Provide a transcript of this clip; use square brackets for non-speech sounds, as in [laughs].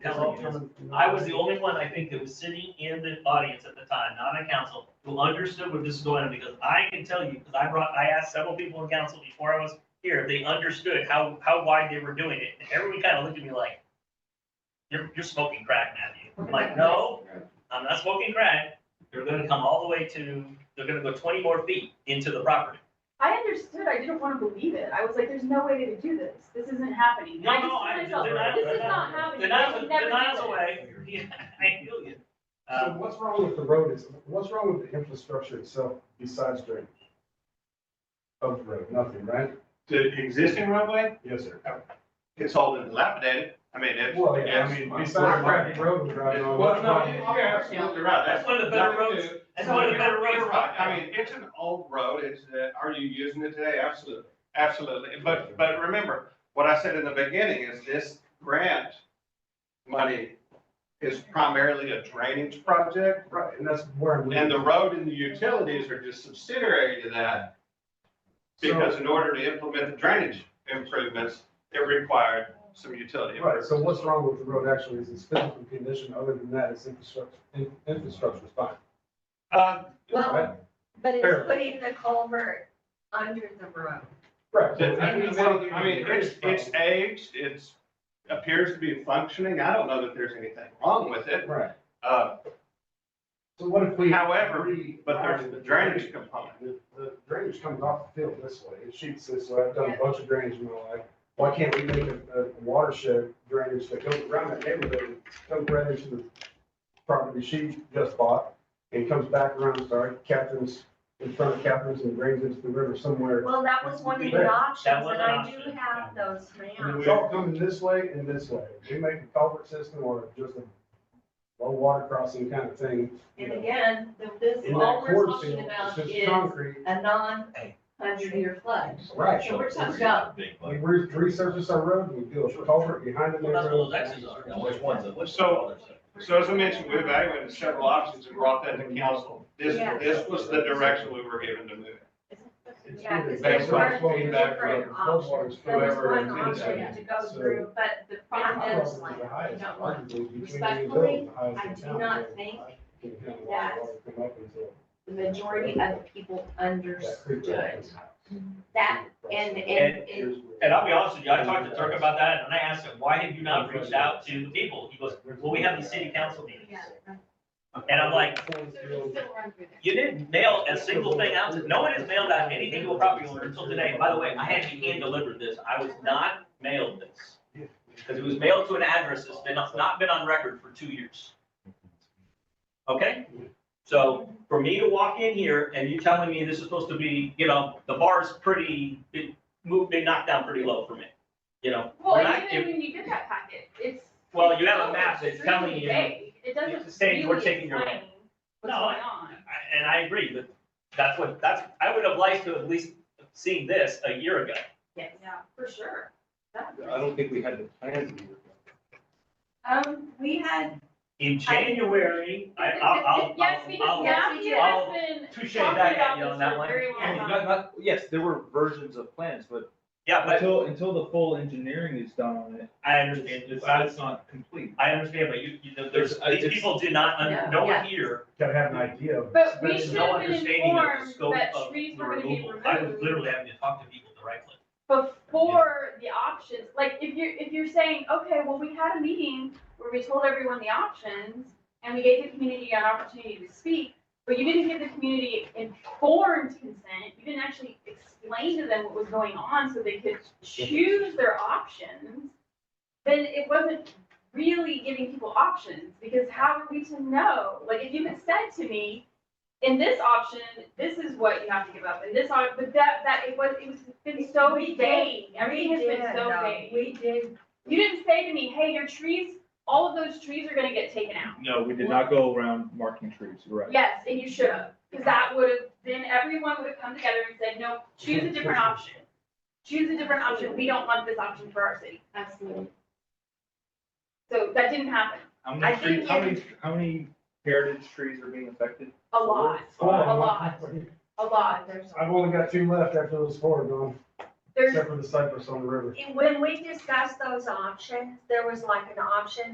Hello, I was the only one, I think, that was sitting in the audience at the time, not on council, who understood what this was going on, because I can tell you, because I brought, I asked several people in council before I was here, if they understood how, how wide they were doing it, and everyone kind of looked at me like, you're, you're smoking crack, Matthew. I'm like, no, I'm not smoking crack. They're gonna come all the way to, they're gonna go twenty more feet into the property. I understood, I didn't wanna believe it, I was like, there's no way to do this, this isn't happening. No, I just no, I- told myself, they're not- This they're is not- not happening, The I nine's, would the never nine's do this. away, [laughs] Yeah, I feel you. So Um, what's wrong with the road is, what's wrong with the infrastructure itself besides drainage? Of the road, nothing, right? The existing roadway, Yes, sir. it's all dilapidated. I mean, it's. Well, yeah, I it's- mean, besides driving road, we're driving on. Well, no, you're absolutely right. That's one of the better roads, that's one of the better roads. You're right. I mean, it's an old road. It's, uh, are you using it today? Absolutely, absolutely. But, but remember, what I said in the beginning is this grant money is primarily a drainage project. Right, and that's where. we- And the road and the utilities are just subsidiary to that, because in order to implement the drainage improvements, it required some utility. Right, so improvements. what's wrong with the road actually is its physical condition, other than that, its infrastructure, in- infrastructure's fine. Uh, Well, Right. but Fair. it's putting the culvert under the road. Right. that- I mean, I mean, it's, it's aged, it's, appears to be functioning, I don't know that there's anything wrong with it. Right. Uh, So what if we? However, we- but there's the drainage component. The the drainage comes off the field this way, it shoots this way, I've done a bunch of drainage in my life. Why can't we make a, a watershed drainage that goes around that neighborhood, comes right into the property she just bought, and comes back around, sorry, Catherine's, in front of Catherine's and drains into the river somewhere. Well, that was one of the That options, was and an I do option, have those And maps. It's all coming this way and this way, we make a culvert system or just a low water crossing kind of thing. you And know. again, the- this, In all that we're corn talking field, about it's is just concrete, a non-hundred-year Um, flood. right, So we're talking about, we re- resurface our road, and we do a culvert behind it. Well, that's what those X's are. Which ones, which? So- So as I mentioned, we evaluated several options and brought that to council. This, Yeah. this was the direction we were given to move. it. yeah, because Based there on were three feedback from different options. There was whoever one did that. option to go So- through, but the problem is, like, I don't want, respectfully, I do not think that the majority of the people understood that, and, and, and And I'll be honest with you, I talked to Turk about that, and I asked him, why have you not reached out to the people? He goes, well, we have the city council meeting. And I'm like, you didn't mail a single thing out, to no one has mailed out anything to a property owner until today. By the way, I had to hand deliver this, I was not mailed this. Because it was mailed to an address that's been, not been on record for two years. Okay? So for me to walk in here and you telling me this is supposed to be, you know, the bar is pretty, it moved, been knocked down pretty low for me, you know? Well, When I- and even when you get that packet, it's. Well, you have a it's map that's telling extremely you- vague. It it's doesn't saying we're really taking your- explain what's No, going I- on. I- And I agree, but that's what, that's, I would have liked to at least seen this a year ago. Yeah, for sure. That- I don't think we had the plan. Um, we had, In January, I, I'll, I'll. [laughs] Yes, I'll- because Matthew I'll- has been touche talking that, about you know, this that for a one. very long Yeah, Not, time. not, yes, there were versions of plans, but Yeah, but until, until the full engineering is done on it, I understand, it's, I, it's not complete. I understand, but you, you, there's, It's- these it's- people did not, Yeah. un- no Yeah. one here, Gotta have an idea of. But we there's should no have been understanding of the informed scope that of trees the were gonna be removal. I was removed. literally having to talk to people at the right place. before the options, like if you're, if you're saying, okay, well, we had a meeting where we told everyone the options and we gave the community an opportunity to speak, but you didn't give the community informed consent. You didn't actually explain to them what was going on so they could choose their options. Then it wasn't really giving people options because how are we to know? Like if you had said to me, in this option, this is what you have to give up, and this option, but that, that, it was, it was, it's been so We did- vague, everything has been did, so um, vague. We did, You didn't say to me, hey, your trees, all of those trees are gonna get taken out. No, we did not go around marking trees, you're right. Yes, and you should have, because that would have, then everyone would have come together and said, no, choose a different option. Choose a different option, we don't want this option for our city. absolutely. So that didn't happen, How I many trees, think how it- many, how many heritage trees are being affected? a lot, a lot, a lot. There's- I've only got two left after those four are gone, There's except for the cypress on the river. When we discussed those options, there was like an option